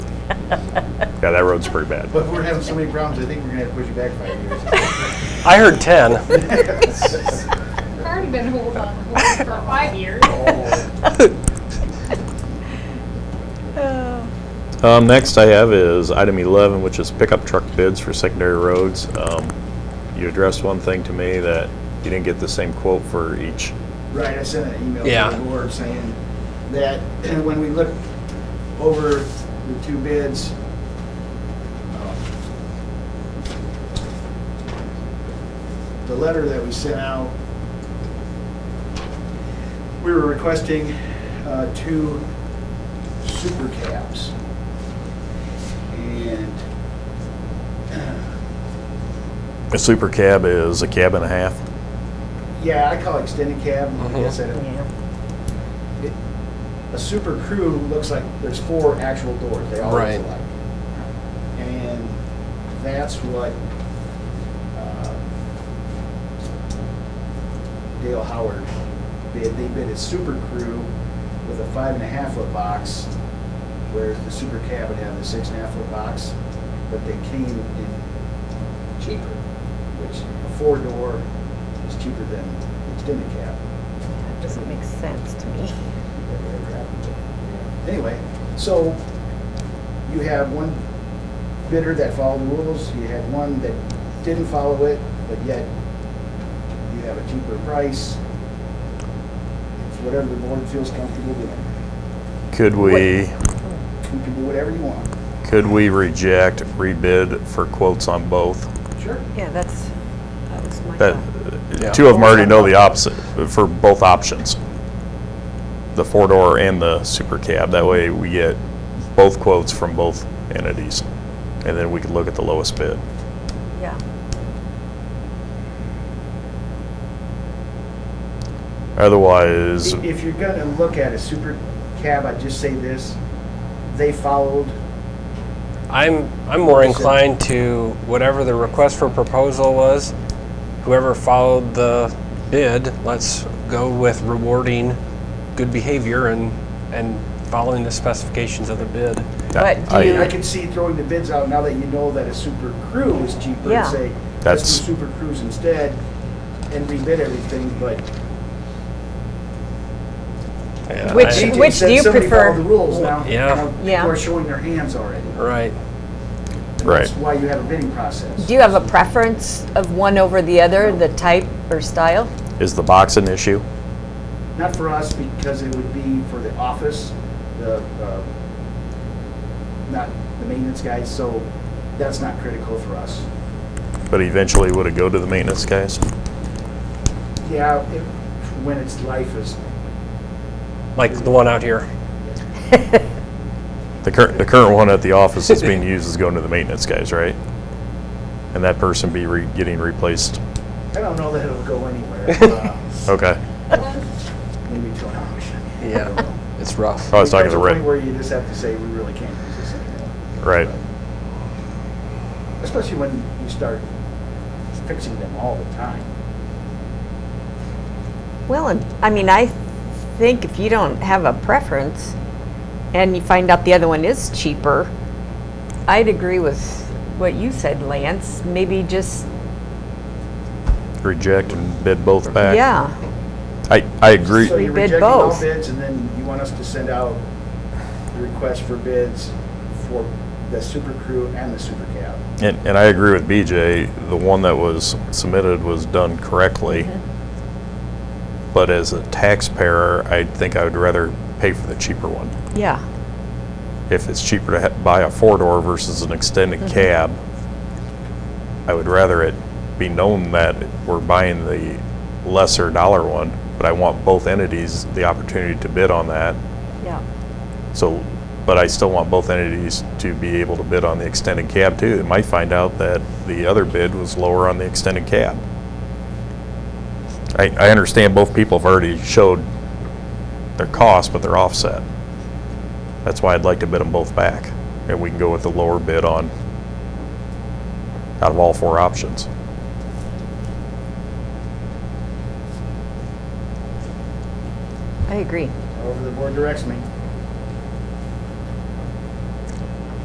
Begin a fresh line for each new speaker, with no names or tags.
Yeah, that road's pretty bad.
But if we're having so many problems, I think we're gonna have to push you back five
I heard 10.
years.
I've already been holding on hold for five years.
Um, next I have is item 11, which is pickup truck bids for secondary roads. Um, you addressed one thing to me that you didn't get the same quote for each.
Right, I sent an email
Yeah.
to the board saying that when we looked over the two bids, um, the letter that we sent out, we were requesting uh, two super cabs. And
A super cab is a cab and a half.
Yeah, I call it extended cab, I guess I don't. It- A super crew looks like there's four actual doors, they all look
Right.
alike. And that's what uh, Dale Howard bid, they bid a super crew with a five and a half foot box, whereas the super cab would have the six and a half foot box, but they came in cheaper, which a four door is cheaper than extended cab.
That doesn't make sense to me.
Anyway, so you have one bidder that followed the rules, you had one that didn't follow it, but yet you have a cheaper price. It's whatever the board feels comfortable doing.
Could we,
You can do whatever you want.
could we reject rebid for quotes on both?
Sure.
Yeah, that's, that was my
That,
thought.
two of them already know the opposite, for both options. The four-door and the super cab, that way we get both quotes from both entities. And then we could look at the lowest bid.
Yeah.
Otherwise,
If you're gonna look at a super cab, I'd just say this, they followed,
I'm, I'm more inclined to whatever the request for proposal was, whoever followed the bid, let's go with rewarding good behavior and, and following the specifications of the bid.
But do
I-
I
you,
could see throwing the bids out now that you know that a super crew is cheaper
Yeah.
and say,
That's-
let's do super crews instead and rebid everything, but.
Yeah,
Which-
I-
Gigi
which
said
do you
somebody
prefer?
followed the rules now.
Yeah.
Now
Yeah.
People are showing their hands already.
Right.
And
Right.
That's why you have a bidding process.
do you have a preference of one over the other, the type or style?
is the box an issue?
Not for us, because it would be for the office, the, uh, not the maintenance guys, so that's not critical for us.
But eventually, would it go to the maintenance guys?
Yeah, it- when its life is,
Like the one out here.
The current, the current one at the office that's being used is going to the maintenance guys, right? And that person be re, getting replaced?
I don't know that it'll go anywhere. Uh,
Okay.
Maybe to an auction.
Yeah. It's rough.
Oh,
I was talking to
There's a point
Rick,
Where you just have to say, we really can't use this anymore.
right?
Especially when you start fixing them all the time.
Well, and- I mean, I think if you don't have a preference and you find out the other one is cheaper, I'd agree with what you said, Lance. Maybe just,
Reject and bid both back?
yeah.
I, I agree.
So you're
We bid
rejecting all
both.
bids, and then you want us to send out the request for bids for the super crew and the super cab.
And, and I agree with BJ, the one that was submitted was done correctly. But as a taxpayer, I think I would rather pay for the cheaper one.
Yeah,
If it's cheaper to ha- buy a four-door versus an extended cab, I would rather it be known that we're buying the lesser dollar one, but I want both entities the opportunity to bid on that.
yeah.
So, but I still want both entities to be able to bid on the extended cab too. They might find out that the other bid was lower on the extended cab. I, I understand both people have already showed their cost, but they're offset. That's why I'd like to bid them both back, and we can go with the lower bid on, out of all four options.
I agree.
However, the board directs me.